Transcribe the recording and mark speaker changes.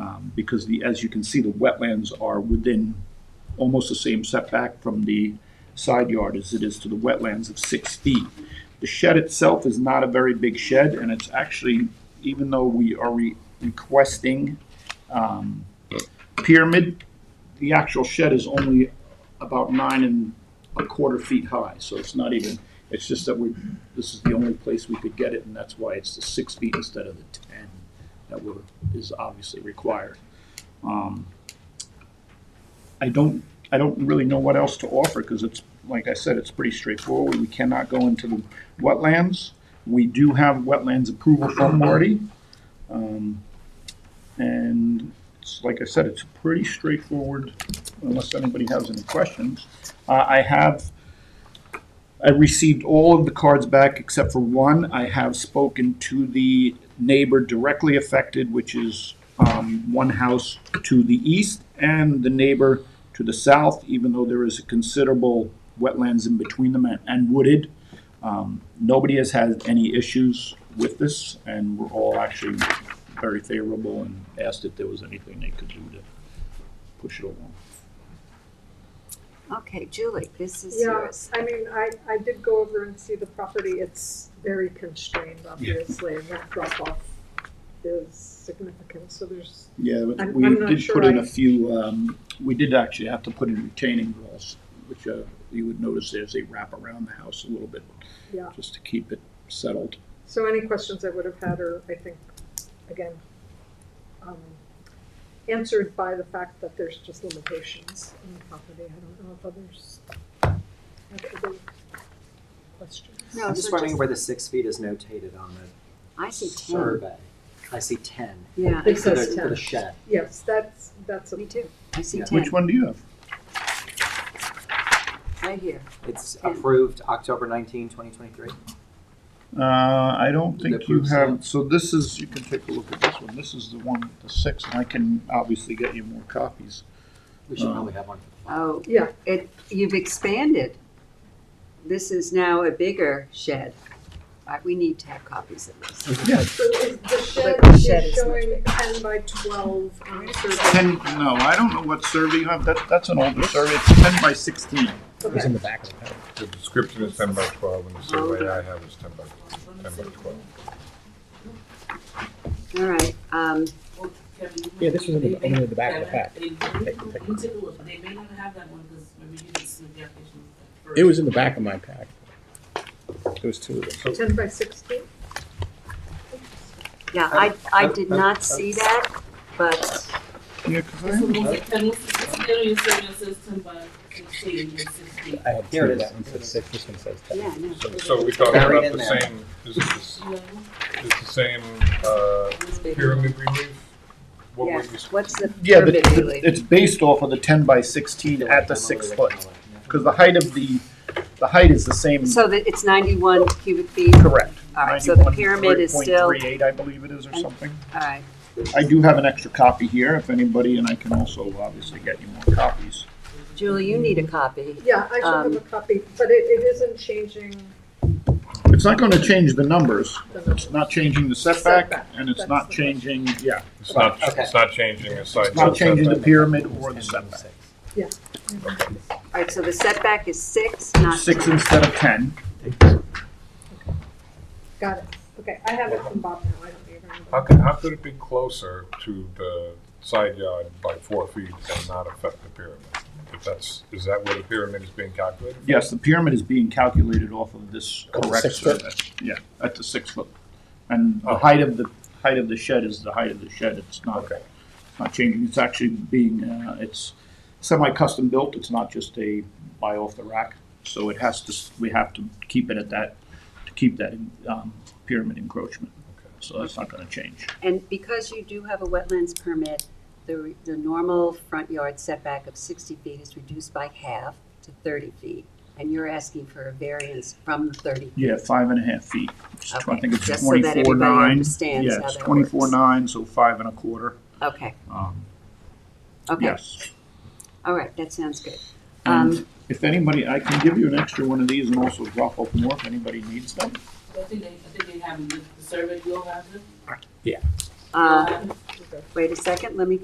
Speaker 1: Um, because the, as you can see, the wetlands are within almost the same setback from the side yard as it is to the wetlands of six feet. The shed itself is not a very big shed, and it's actually, even though we are re- requesting um, pyramid, the actual shed is only about nine and a quarter feet high, so it's not even, it's just that we, this is the only place we could get it, and that's why it's the six feet instead of the ten that were, is obviously required. Um, I don't, I don't really know what else to offer, because it's, like I said, it's pretty straightforward. We cannot go into the wetlands. We do have wetlands approval from Marty. Um, And it's, like I said, it's pretty straightforward, unless anybody has any questions. Uh, I have, I received all of the cards back except for one. I have spoken to the neighbor directly affected, which is um, one house to the east and the neighbor to the south, even though there is a considerable wetlands in between them and- and wooded. Um, Nobody has had any issues with this, and we're all actually very favorable and asked if there was anything they could do to push it along.
Speaker 2: Okay, Julie, this is
Speaker 3: Yeah,
Speaker 2: yours.
Speaker 3: I mean, I, I did go over and see the property, it's very constrained, obviously, and that drop off is significant, so there's,
Speaker 1: Yeah, but
Speaker 3: I'm-
Speaker 1: we
Speaker 3: I'm not
Speaker 1: did
Speaker 3: sure
Speaker 1: put in
Speaker 3: I-
Speaker 1: a few, um, we did actually have to put in retaining walls, which uh, you would notice there's a wrap around the house a little bit,
Speaker 3: yeah.
Speaker 1: just to keep it settled.
Speaker 3: So any questions I would have had are, I think, again, um, answered by the fact that there's just limitations in the property. I don't know if others have other questions.
Speaker 2: No,
Speaker 4: I'm just
Speaker 2: Oh, so
Speaker 4: wondering where the six feet is notated on
Speaker 2: I
Speaker 4: the
Speaker 2: see ten.
Speaker 4: survey. I see ten.
Speaker 2: Yeah,
Speaker 3: It
Speaker 4: For the,
Speaker 3: says
Speaker 4: for
Speaker 3: ten.
Speaker 4: the shed.
Speaker 3: Yes, that's, that's a.
Speaker 2: me too. I see
Speaker 4: Yeah.
Speaker 2: ten,
Speaker 1: Which one do you have?
Speaker 2: right here.
Speaker 4: It's
Speaker 2: Ten.
Speaker 4: approved October 19, 2023.
Speaker 1: Uh, I don't think
Speaker 4: That
Speaker 1: you
Speaker 4: proves
Speaker 1: have,
Speaker 4: that.
Speaker 1: so this is, you can take a look at this one, this is the one, with the six, and I can obviously get you more copies.
Speaker 4: We should
Speaker 1: Oh.
Speaker 4: probably have one for the file.
Speaker 2: Oh,
Speaker 3: Yeah.
Speaker 2: it, you've expanded. This is now a bigger shed. Uh, We need to have copies of this.
Speaker 1: Yeah,
Speaker 3: So is the shed
Speaker 2: But the shed
Speaker 3: is
Speaker 2: is much
Speaker 3: showing ten by twelve on survey.
Speaker 1: ten, no, I don't know what survey you have, that, that's an older survey, it's ten by sixteen.
Speaker 5: It's
Speaker 3: Okay.
Speaker 5: in the back.
Speaker 6: The description is ten by twelve, and the survey I have is ten by, ten by twelve.
Speaker 2: All right, um,
Speaker 5: Yeah, this was in the, in the back of the pack.
Speaker 7: They, you took a look, they may not have that one, because remember you didn't submit the application. first.
Speaker 5: It was in the back of my pack. There was two of them.
Speaker 3: Ten by sixteen?
Speaker 2: yeah, I, I did not see that, but
Speaker 1: Yeah, 'cause I
Speaker 7: It's a
Speaker 1: haven't-
Speaker 7: little- I mean, it's- it's literally serving a system by sixteen and sixteen.
Speaker 5: I had two,
Speaker 4: Here it is.
Speaker 5: that one said six, this one says ten.
Speaker 2: Yeah, I know.
Speaker 6: So- So we talking
Speaker 4: Buried
Speaker 6: about
Speaker 4: in
Speaker 6: the
Speaker 4: there.
Speaker 6: same, is this,
Speaker 7: You know?
Speaker 6: is the same, uh,
Speaker 2: it's bigger.
Speaker 6: pyramid relief? What
Speaker 2: Yeah,
Speaker 6: were we,
Speaker 2: what's the
Speaker 1: Yeah, but
Speaker 2: pyramid relief?
Speaker 1: it's based off of the ten by sixteen at the six foot, because the height of the, the height is the same,
Speaker 2: So that it's ninety-one cubic feet?
Speaker 1: correct.
Speaker 2: All right, so the pyramid is still, all
Speaker 1: 91.38, I believe it is, or
Speaker 2: And-
Speaker 1: something.
Speaker 2: right.
Speaker 1: I do have an extra copy here, if anybody, and I can also obviously get you more copies.
Speaker 2: Julie, you need a copy.
Speaker 3: Yeah, I should have
Speaker 2: Um,
Speaker 3: a copy, but it, it isn't changing
Speaker 1: It's not gonna change the numbers,
Speaker 3: the number.
Speaker 1: it's not changing the setback,
Speaker 3: Setback,
Speaker 1: and it's
Speaker 3: that's
Speaker 1: not
Speaker 3: the-
Speaker 1: changing, yeah,
Speaker 6: it's not,
Speaker 4: Okay.
Speaker 6: it's not changing the side.
Speaker 1: it's not changing the
Speaker 6: setback.
Speaker 1: pyramid or the setback.
Speaker 2: All right, so the setback is six, not
Speaker 1: Six
Speaker 2: ten.
Speaker 1: instead of ten,
Speaker 3: Got it. Okay, I have it from Bob now, I don't need
Speaker 6: How
Speaker 3: it.
Speaker 6: could, how could it be closer to the side yard by four feet and not affect the pyramid? If that's, is that where the pyramid is being calculated?
Speaker 1: yes, the pyramid is being calculated off of this
Speaker 5: Of the
Speaker 1: correct
Speaker 5: six foot?
Speaker 1: survey. Yeah, at the six foot, and the height of the, height of the shed is the height of the shed, it's not,
Speaker 6: Okay.
Speaker 1: it's not changing, it's actually being, uh, it's semi-custom built, it's not just a buy off the rack, so it has to, we have to keep it at that, to keep that, um, pyramid encroachment, so that's not gonna change.
Speaker 2: And because you do have a wetlands permit, the, the normal front yard setback of sixty feet is reduced by half to thirty feet. And you're asking for a variance from the thirty.
Speaker 1: Yeah, five and a half feet. It's tw- I
Speaker 2: Okay,
Speaker 1: think it's
Speaker 2: just so that everybody
Speaker 1: twenty-four nine.
Speaker 2: understands
Speaker 1: Yeah,
Speaker 2: how
Speaker 1: it's
Speaker 2: that
Speaker 1: twenty-four
Speaker 2: works.
Speaker 1: nine, so five and a quarter.
Speaker 2: Okay,
Speaker 1: Um,
Speaker 2: okay,
Speaker 1: Yes.
Speaker 2: all right, that sounds good. Um,
Speaker 1: And if anybody, I can give you an extra one of these and also drop off more if anybody needs them.
Speaker 7: I think they, I think they have, the the survey, you'll have it?
Speaker 2: uh,
Speaker 7: You'll have it?
Speaker 2: wait a second, let me